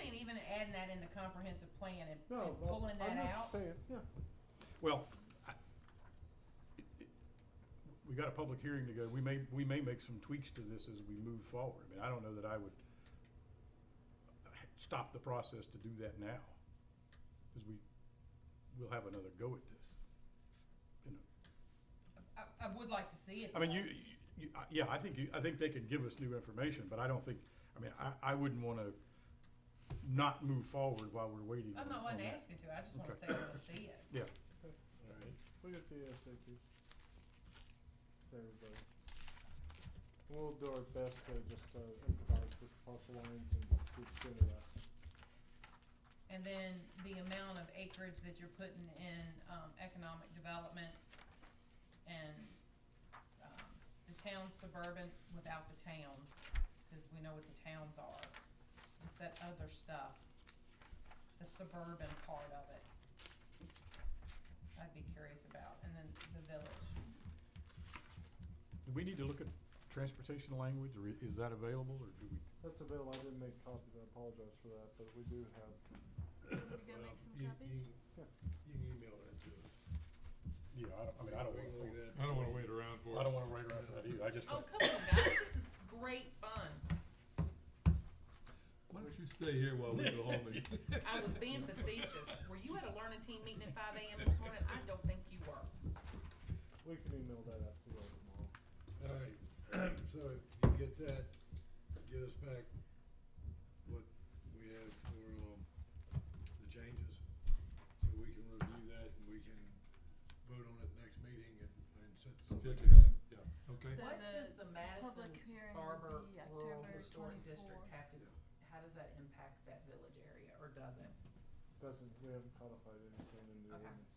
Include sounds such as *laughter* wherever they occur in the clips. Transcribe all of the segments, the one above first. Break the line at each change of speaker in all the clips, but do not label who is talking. adding that in the comprehensive plan and
No,
and
well,
pulling that
I'm not
out?
saying- Yeah,
Well, I- it- it- we got a public hearing to go. We may, we may make some tweaks to this as we move forward. I mean, I don't know that I would stop the process to do that now, because we, we'll have another go at this. You know,
I, I would like to see it.
I mean,
though.
you, you, I- yeah, I think, you I think they can give us new information, but I don't think, I mean, I, I wouldn't want to not move forward while we're waiting.
I'm not
on-
one
on
to
that.
ask you to, I just wanna say
Okay.
I wanna see it.
Yeah.
Okay.
All right.
we got the ASAP. There we go. We'll do our best to just uh, improvise with parcel lines and keep good at that.
And then the amount of acreage that you're putting in, um, economic development and, um, the town suburban without the town, cause we know what the towns are. It's that other stuff, the suburban part of it. I'd be curious about, and then the village.
Do we need to look at transportation language, or i- is that available, or do we?
That's available, I didn't make copies, I apologize for that, but we do have,
Somebody's gonna make some copies?
Yeah.
You can email that to us.
Yeah, I don't, I mean, I don't
We
wanna,
can look at that.
I don't wanna wait around for it.
I don't wanna write around for that either, I just,
Oh,
want-
come on, guys, this is great fun.
Why don't you stay here while we
*laughs*
go home and?
I was being facetious. Were you at a learning team meeting at five AM this morning? I don't think you were.
we can email that out to you all tomorrow.
All right, *clears throat* so if you get that, get us back what we have for, um, the changes. So we can review that and we can vote on it next meeting and, and set the public
Schedule
hearing.
it, yeah, okay.
So
What
the
does the Madison
Public hearing
Barber
will be
Rural
October
Historic District
twenty-four.
have to, how does that impact that village area, or does it?
Doesn't, we haven't codified anything in the
Okay.
ordinance.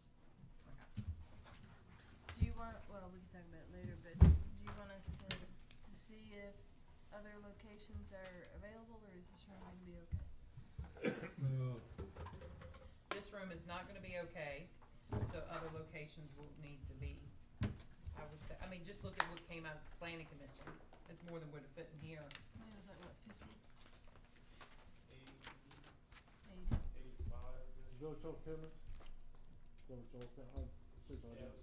Do you want, well, we can talk about it later, but do you want us to, to see if other locations are available, or is this room gonna be okay?
Uh,
This room is not gonna be okay, so other locations will need to be, I would say, I mean, just look at what came out of the planning commission. It's more than would have fit in here.
I think it was like, what, fifty? Eighty.
Village Hall Commons? Village Hall Commons, I'm, Susan, I didn't-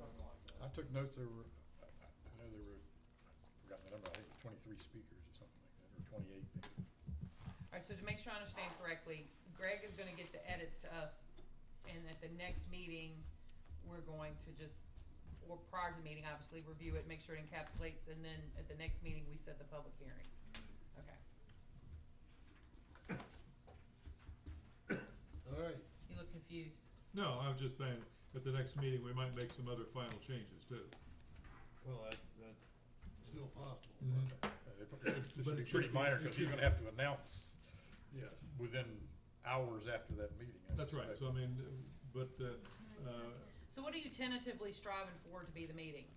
I took notes, there were, I, I- I know there were, I forgot the number, I think it was twenty-three speakers or something like that, or twenty-eight. Uh, maybe.
Alright, so to make sure I understand correctly, Greg is gonna get the edits to us, and at the next meeting, we're going to just, or prior to the meeting, obviously, review it, make sure it encapsulates, and then at the next meeting, we set the public hearing. Okay,
All right,
you look confused.
No, I was just saying, at the next meeting, we might make some other final changes too.
well, that, that's still possible.
Mm-hmm.
Uh, it- *coughs* It it
But
should be
it should
pretty
be-
minor,
it
because
should
you're
be-
gonna have to announce
Yes,
within hours after that meeting, I
That's right,
suspect.
so I mean, but, uh,
Can we
Uh,
set it?
So what are you tentatively striving for to be the meeting?